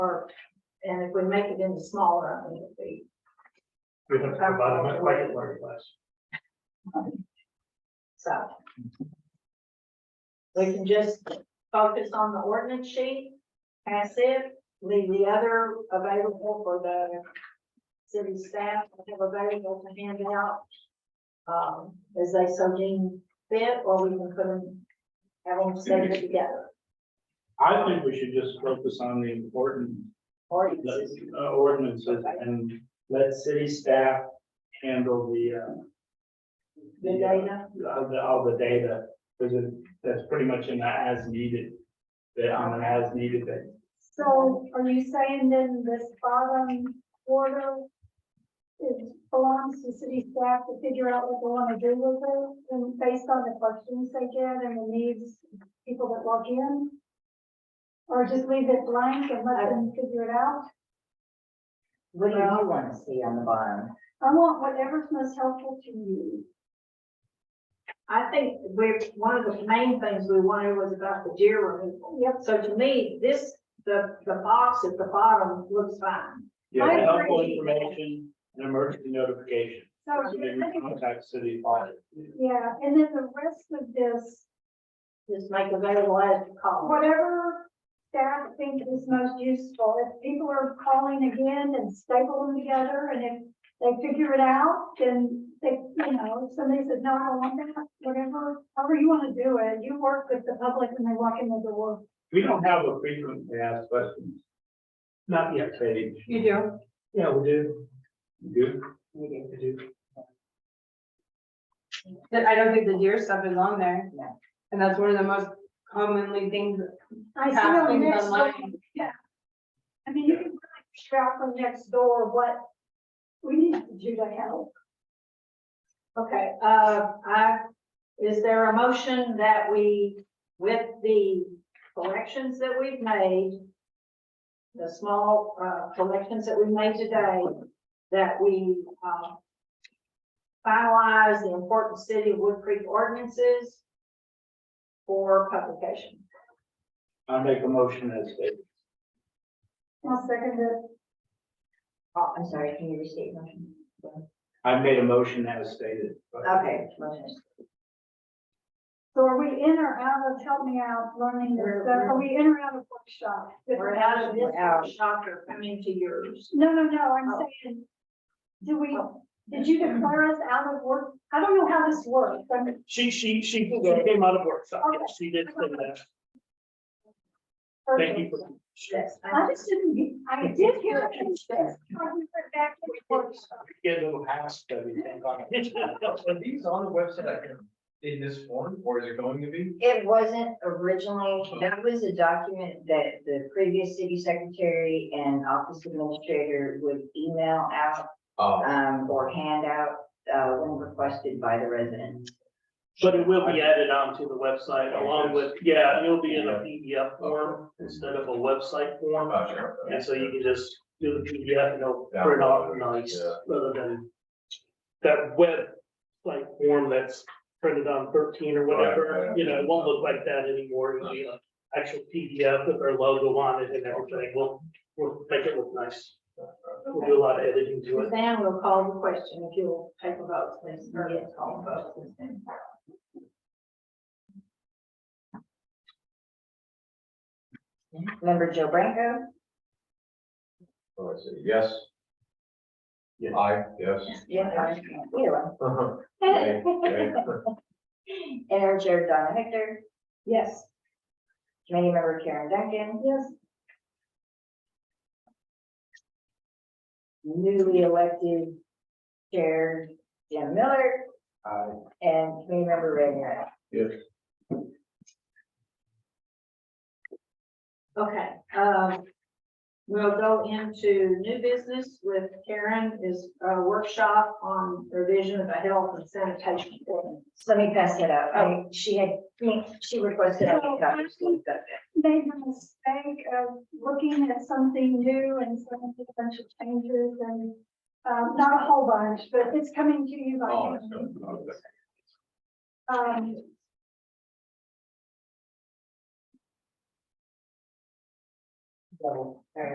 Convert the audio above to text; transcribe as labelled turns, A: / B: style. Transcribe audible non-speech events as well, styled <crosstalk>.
A: or, and if we make it into smaller, I think it'd be.
B: We have to combine them, make it larger class.
A: So. We can just focus on the ordinance sheet, pass it, leave the other available for the city staff to have available to hand out. Um, as they so deem fit, or we can put them, have them save it together,
B: I think we should just focus on the important
A: or you just-
B: uh, ordinances and let city staff handle the, uh,
A: the data.
B: all the, all the data, because that's pretty much in the as needed, that on an as needed thing.
C: So are you saying then this bottom quarter is belongs to city staff to figure out what they want to do with it and based on the questions they get and the needs of people that walk in? Or just leave it blank and let them figure it out?
D: What do you want to see on the bottom?
C: I want whatever's most helpful to you.
A: I think we're, one of the main things we wanted was about the deer removal.
C: Yep.
A: So to me, this, the, the box at the bottom looks fine.
B: You
C: I
B: have helpful
C: agree.
B: information and emergency notification,
C: So
B: so
C: you're
B: they can
C: thinking,
B: contact city audit.
C: yeah, and then the rest of this,
A: just make available as you call.
C: whatever staff think is most useful, if people are calling again and staple them together, and if they figure it out, then they, you know, if somebody says, no, I don't want that, whatever, however you wanna do it, you work with the public when they walk in the door.
B: We don't have a frequently asked questions. Not yet, Katie.
A: You do.
B: Yeah, we do. Good. We do.
E: That I don't think the deer stuff is on there.
D: No.
E: And that's one of the most commonly things that
C: I see on
E: happens
C: the next one,
E: online.
C: I mean, you can really figure out from next door what we need to do to help.
A: Okay, uh, I, is there a motion that we, with the corrections that we've made, the small, uh, corrections that we made today, that we, uh, finalize the important city of Wood Creek ordinances for publication?
B: I make a motion as stated.
C: I'll second it.
D: Oh, I'm sorry, can you restate your motion?
B: I made a motion as stated.
D: Okay, motion is-
C: So are we in or out of, help me out, learning this
A: We're-
C: stuff,
A: we're-
C: are we in or out of workshop?
A: We're out of
D: We're out.
A: this shocker coming to yours.
C: No, no, no, I'm
A: Oh.
C: saying, do we, did you declare us out of work? I don't know how this works, I mean,
B: She, she, she she came out of workshop. Yes, She did say that. Thank you.
C: perfect.
B: for-
A: Yes.
C: I just didn't, get- I did hear it. I just went back to workshop.
B: Get a little house study. thing on it.
F: Are these on the website in this form or is it going to be?
D: It wasn't originally, that was a document that the previous city secretary and office administrator would email out,
F: Oh,
D: um, or hand out, uh, when requested by the residents.
G: <laughs> But it will be added onto the website along with, yeah, and it'll be in a PDF form instead of a website
F: Uh,
G: form.
F: gotcha.
G: And so you can just do the PDF and it'll print off nice, rather than that web like form that's printed on thirteen or
F: Right,
G: whatever,
F: right.
G: you know, it won't look like that anymore. It'll be an actual PDF with our logo on it and everything. We'll, we'll make it look nice. We'll do a lot of editing to it.
A: Suzanne will call the question if you'll take a vote, please. Or yes, call the vote.
D: Member Joe Branco,
F: Oh, I see. Yes.
B: Yes.
F: I,
G: <laughs>
F: yes.
D: yeah, I, yeah.
F: Okay, okay.
D: Interim Chair Donna Hector,
A: Yes.
D: Committee Member Karen Duncan,
C: Yes,
D: newly elected Chair Jim Miller,
F: I,
D: and Committee Member Redmar.
F: yes.
A: Okay, um, we'll go into new business with Karen is a workshop on revision of a health and sanitation ordinance.
D: So let me pass that out. I, she had, she requested I get copies. so I've got that.
C: made the mistake of looking at something new and some potential changes and, um, not a whole bunch, but it's coming to you by.
F: Oh,
C: hand.
F: it's good. Okay.
C: Um.
D: Double, all right.